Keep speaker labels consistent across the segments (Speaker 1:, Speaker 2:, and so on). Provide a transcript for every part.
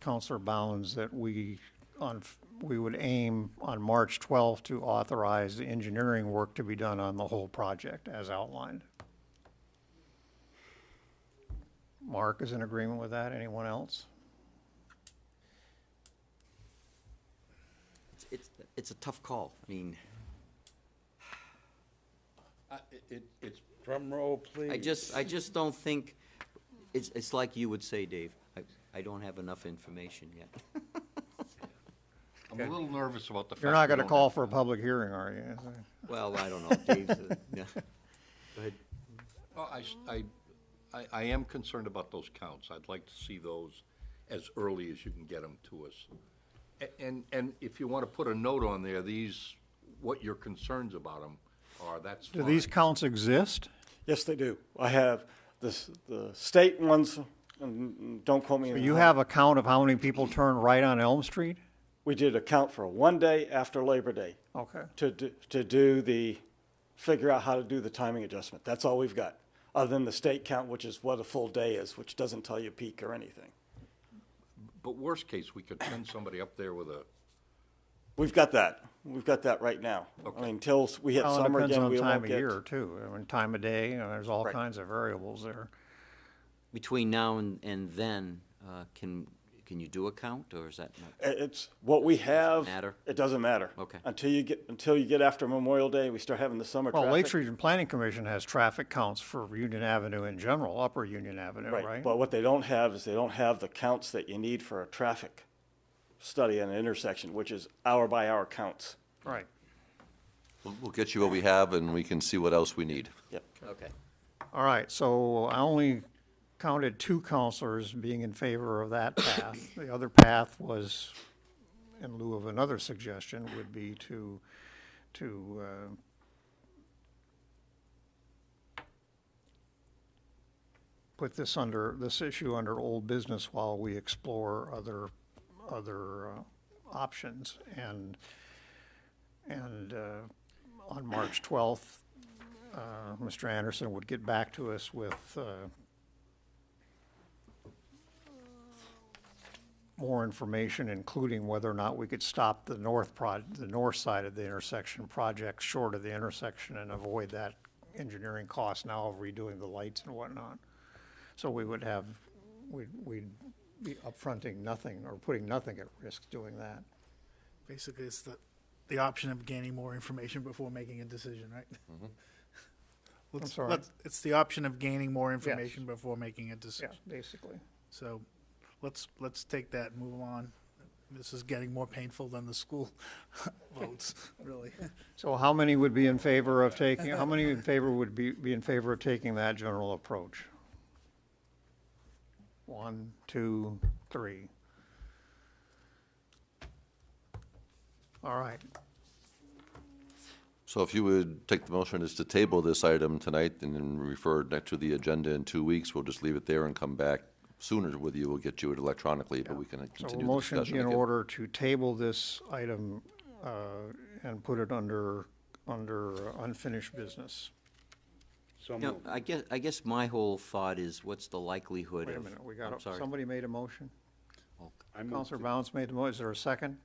Speaker 1: Counselor Bounds that we, on, we would aim on March 12th to authorize the engineering work to be done on the whole project as outlined. Mark is in agreement with that. Anyone else?
Speaker 2: It's- It's, it's a tough call. I mean,
Speaker 3: Uh, it- It, it's drum roll, please.
Speaker 2: I just, I just don't think, it's, it's like you would say, Dave, I, I don't have enough information yet.
Speaker 3: I'm a little nervous about the fact.
Speaker 1: You're not
Speaker 3: we
Speaker 1: going to
Speaker 3: don't
Speaker 1: call
Speaker 3: have-
Speaker 1: for a public hearing, are you?
Speaker 2: Well, I don't know, Dave's, uh, yeah. Go ahead.
Speaker 3: Well, oh, I, s- I- I- I am concerned about those counts. I'd like to see those as early as you can get them to us. A- And, and if you want to put a note on there, these, what your concerns about them are, that's
Speaker 1: Do
Speaker 3: fine.
Speaker 1: these counts exist?
Speaker 4: Yes, they do. I have this, the state ones, and don't quote me. on
Speaker 1: You
Speaker 4: that.
Speaker 1: have a count of how many people turn right on Elm Street?
Speaker 4: We did a count for one day after Labor Day
Speaker 1: Okay.
Speaker 4: to, do- to do the, figure out how to do the timing adjustment. That's all we've got, other than the state count, which is what a full day is, which doesn't tell you peak or anything.
Speaker 3: But worst case, we could send somebody up there with a,
Speaker 4: We've got that. We've got that right now. I mean, until we hit
Speaker 1: Well, it
Speaker 4: summer
Speaker 1: depends
Speaker 4: again,
Speaker 1: on
Speaker 4: we
Speaker 1: the time
Speaker 4: won't
Speaker 1: of
Speaker 4: get.
Speaker 1: year, too. I mean, time of day, you know, there's all kinds of variables there.
Speaker 2: Between now and, and then, uh, can, can you do a count, or is that not?
Speaker 4: I- It's what we have.
Speaker 2: matter?
Speaker 4: It doesn't matter.
Speaker 2: Okay.
Speaker 4: Until you get, until you get after Memorial Day, we start having the summer traffic.
Speaker 1: Well, Lakes Region Planning Commission has traffic counts for Union Avenue in general, Upper Union Avenue, right?
Speaker 4: But what they don't have is they don't have the counts that you need for a traffic study on an intersection, which is hour by hour counts.
Speaker 1: Right.
Speaker 5: We'll we'll get you what we have, and we can see what else we need.
Speaker 4: Yep.
Speaker 2: Okay.
Speaker 1: All right, so I only counted two counselors being in favor of that path. The other path was, in lieu of another suggestion, would be to, to, uh, put this under, this issue under old business while we explore other, other, uh, options. And, and, uh, on March twelfth, uh, Mr. Anderson would get back to us with uh, more information, including whether or not we could stop the north prod, the north side of the intersection project short of the intersection and avoid that engineering cost now of redoing the lights and whatnot. So we would have, we'd, we'd be upfronting nothing or putting nothing at risk doing that.
Speaker 6: Basically, it's the, the option of gaining more information before making a decision, right? Let's-
Speaker 1: sorry.
Speaker 6: let's- It's the option of gaining more information before making a
Speaker 1: Yeah,
Speaker 6: decision.
Speaker 1: basically.
Speaker 6: So let's, let's take that, and move on. This is getting more painful than the school votes, really.
Speaker 1: So how many would be in favor of taking, how many in favor would be, be in favor of taking that general approach? One, two, three. All right,
Speaker 5: So if you would take the motion is to table this item tonight and then refer it next to the agenda in two weeks, we'll just leave it there and come back sooner with you. We'll get you it electronically, but we can
Speaker 1: so
Speaker 5: continue
Speaker 1: a
Speaker 5: the
Speaker 1: motion
Speaker 5: discussion
Speaker 1: be in
Speaker 5: again.
Speaker 1: order to table this item, uh, and put it under, under unfinished business.
Speaker 3: so
Speaker 2: No, I guess, I guess my whole thought is, what's the likelihood
Speaker 1: Wait
Speaker 2: of?
Speaker 1: a minute, we got,
Speaker 2: I'm
Speaker 1: a-
Speaker 2: sorry.
Speaker 1: somebody made a motion?
Speaker 2: Oh,
Speaker 1: Counselor Bounce made the motion, is there a second?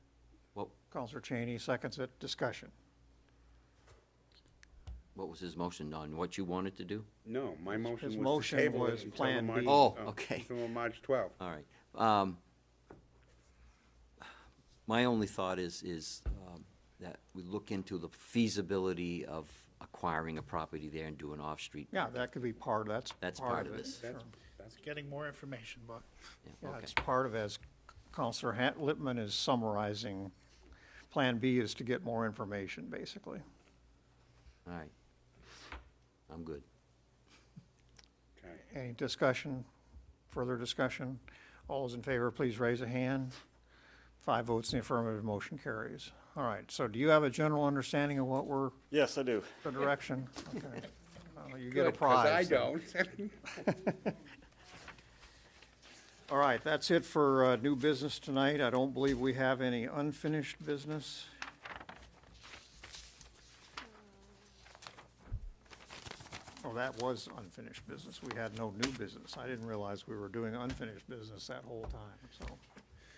Speaker 2: What,
Speaker 1: Counselor Cheney seconds it, discussion.
Speaker 2: what was his motion on, what you wanted to do?
Speaker 7: No, my
Speaker 1: his
Speaker 7: motion was
Speaker 1: motion
Speaker 7: to table
Speaker 1: was
Speaker 7: it until the
Speaker 1: Plan B.
Speaker 7: March.
Speaker 2: Oh,
Speaker 7: uh,
Speaker 2: okay.
Speaker 7: Until March 12th.
Speaker 2: All right. Um, My only thought is, is um, that we look into the feasibility of acquiring a property there and do an off-street.
Speaker 1: Yeah, that could be part, that's
Speaker 2: That's
Speaker 1: part of this.
Speaker 7: That's,
Speaker 6: It's getting more information, but
Speaker 2: Yeah,
Speaker 1: Yeah,
Speaker 2: okay.
Speaker 1: it's part of, as Counselor Han- Lippman is summarizing, Plan B is to get more information, basically.
Speaker 2: All right. I'm good.
Speaker 7: okay.
Speaker 1: Any discussion, further discussion? All those in favor, please raise a hand. Five votes in the affirmative, motion carries. All right, so do you have a general understanding of what we're,
Speaker 4: Yes, I do.
Speaker 1: the direction? Okay. Well, You get a
Speaker 7: Good, 'cause I
Speaker 1: prize. then.
Speaker 7: don't.
Speaker 1: All right, that's it for uh, new business tonight. I don't believe we have any unfinished business. Oh, that was unfinished business. We had no new business. I didn't realize we were doing unfinished business that whole time, so.